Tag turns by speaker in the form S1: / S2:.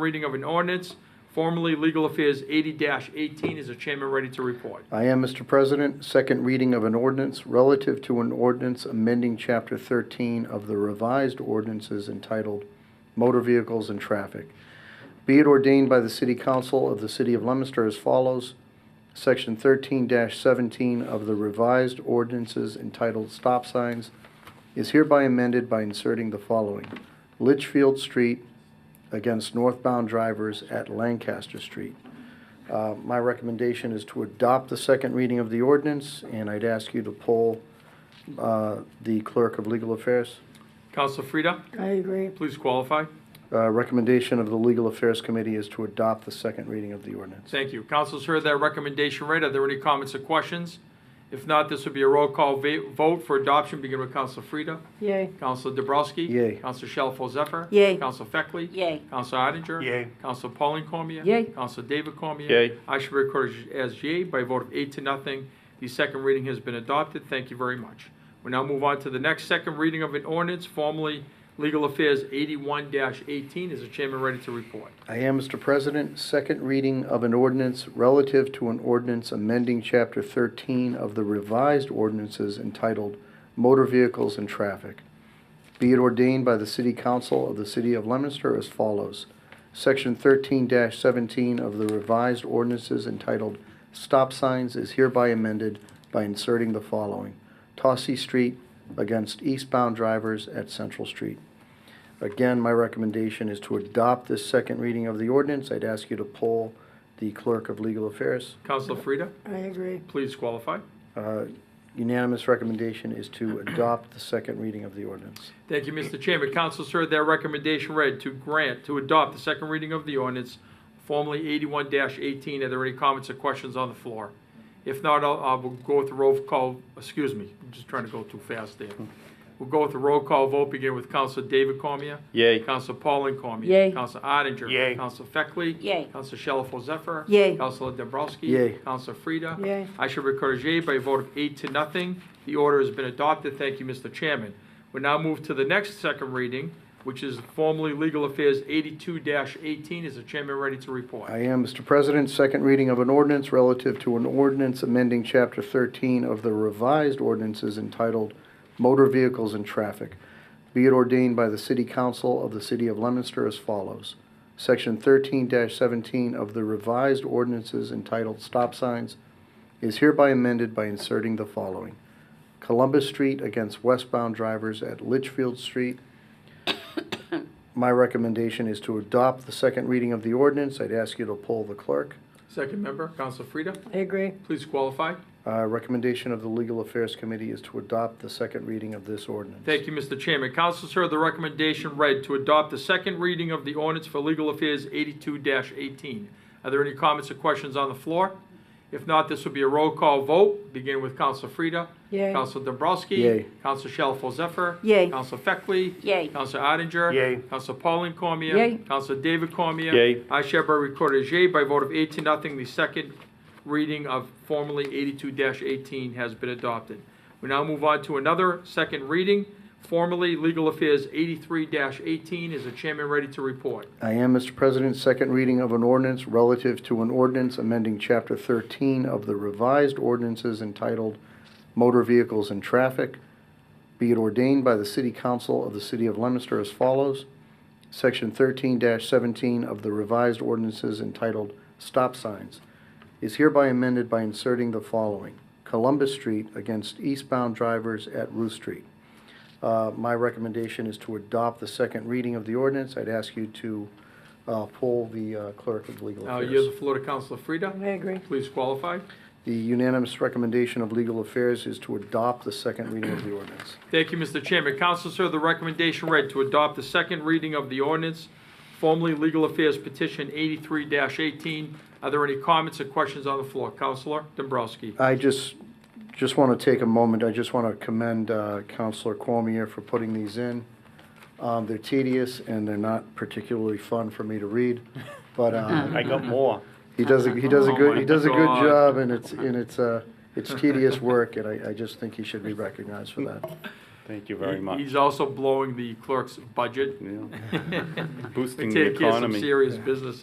S1: reading of an ordinance, formerly Legal Affairs 80-18. Is the chairman ready to report?
S2: I am, Mr. President. Second reading of an ordinance relative to an ordinance amending Chapter 13 of the revised ordinances entitled Motor Vehicles and Traffic. Be it ordained by the City Council of the City of Leominster as follows. Section 13-17 of the revised ordinances entitled Stop Signs is hereby amended by inserting the following. Litchfield Street against northbound drivers at Lancaster Street. Uh, My recommendation is to adopt the second reading of the ordinance, and I'd ask you to poll uh, the Clerk of Legal Affairs.
S1: Counselor Frida,
S3: I agree.
S1: please qualify.
S2: Uh, Recommendation of the Legal Affairs Committee is to adopt the second reading of the ordinance.
S1: Thank you. Councilors heard that recommendation read. Are there any comments or questions? If not, this will be a roll call va- vote for adoption, beginning with Counselor Frida.
S3: Yay.
S1: Counselor Dabrowski.
S2: Yay.
S1: Counselor Shalfo Zephyr.
S3: Yay.
S1: Counselor Feckley.
S3: Yay.
S1: Counselor Odenger.
S4: Yay.
S1: Counselor Pauline Cormier.
S3: Yay.
S1: Counselor David Cormier.
S4: Yay.
S1: I should record as yay by a vote of eight to nothing. The second reading has been adopted. Thank you very much. We now move on to the next second reading of an ordinance, formerly Legal Affairs 81-18. Is the chairman ready to report?
S2: I am, Mr. President. Second reading of an ordinance relative to an ordinance amending Chapter 13 of the revised ordinances entitled Motor Vehicles and Traffic. Be it ordained by the City Council of the City of Leominster as follows. Section 13-17 of the revised ordinances entitled Stop Signs is hereby amended by inserting the following. Tossie Street against eastbound drivers at Central Street. Again, my recommendation is to adopt this second reading of the ordinance. I'd ask you to poll the Clerk of Legal Affairs.
S1: Counselor Frida,
S3: I agree.
S1: please qualify.
S2: Uh, Unanimous recommendation is to adopt the second reading of the ordinance.
S1: Thank you, Mr. Chairman. Councilors heard that recommendation read to grant, to adopt the second reading of the ordinance, formerly 81-18. Are there any comments or questions on the floor? If not, I'll, I will go with the roll call, excuse me, I'm just trying to go too fast there. We'll go with the roll call vote, beginning with Councilor David Cormier.
S4: Yay.
S1: Councilor Pauline Cormier.
S3: Yay.
S1: Councilor Odenger.
S4: Yay.
S1: Councilor Feckley.
S3: Yay.
S1: Councilor Shalfo Zephyr.
S3: Yay.
S1: Councilor Dobrowski.
S2: Yay.
S1: Councilor Frida.
S3: Yay.
S1: I shall record a yea by a vote of eight to nothing. The order has been adopted. Thank you, Mr. Chairman. We now move to the next second reading, which is formally Legal Affairs 82-18. Is the chairman ready to report?
S2: I am, Mr. President. Second reading of an ordinance relative to an ordinance amending Chapter 13 of the revised ordinances entitled Motor Vehicles and Traffic. Be it ordained by the City Council of the City of Leominster as follows. Section 13-17 of the revised ordinances entitled Stop Signs is hereby amended by inserting the following. Columbus Street against westbound drivers at Litchfield Street my recommendation is to adopt the second reading of the ordinance. I'd ask you to poll the clerk.
S1: Second member, Council Frida,
S3: I agree.
S1: please qualify.
S2: Uh, Recommendation of the Legal Affairs Committee is to adopt the second reading of this ordinance.
S1: Thank you, Mr. Chairman. Councilors heard the recommendation read to adopt the second reading of the ordinance for Legal Affairs 82-18. Are there any comments or questions on the floor? If not, this will be a roll call vote, beginning with Council Frida.
S3: Yay.
S1: Council Dobrowski.
S2: Yay.
S1: Council Shalfo Zephyr.
S3: Yay.
S1: Council Feckley.
S3: Yay.
S1: Council Odenger.
S4: Yay.
S1: Council Pauline Cormier.
S3: Yay.
S1: Council David Cormier.
S4: Yay.
S1: I shall be recorded as yea by vote of eight to nothing. The second reading of formerly 82-18 has been adopted. We now move on to another second reading, formerly Legal Affairs 83-18. Is the chairman ready to report?
S2: I am, Mr. President, second reading of an ordinance relative to an ordinance amending Chapter 13 of the revised ordinances entitled Motor Vehicles and Traffic. Be it ordained by the City Council of the City of Leominster as follows. Section 13-17 of the revised ordinances entitled Stop Signs is hereby amended by inserting the following. Columbus Street against eastbound drivers at Ruth Street. Uh, My recommendation is to adopt the second reading of the ordinance. I'd ask you to uh, poll the uh, clerk of legal
S1: Now,
S2: affairs.
S1: yield the floor to Councilor
S3: I
S1: Frida.
S3: agree.
S1: Please qualify.
S2: The unanimous recommendation of legal affairs is to adopt the second reading of the ordinance.
S1: Thank you, Mr. Chairman. Councilors heard the recommendation read to adopt the second reading of the ordinance, formerly Legal Affairs Petition 83-18. Are there any comments or questions on the floor? Councilor Dombrowski.
S2: I just, just want to take a moment, I just want to commend uh, Counselor Cormier for putting these in. Um, They're tedious and they're not particularly fun for me to read, but uh,
S4: I
S1: Mm-hmm.
S4: got more.
S2: he does, a he does a good, he does a
S1: Oh
S2: good
S1: my God.
S2: job and it's, and it's, uh, it's tedious work and I, I just think he should be recognized for that.
S4: Thank you very
S1: He-
S4: much.
S1: He's also blowing the clerk's budget.
S4: Yeah.
S1: To
S4: Boosting the
S1: Take care of some
S4: economy.
S1: serious business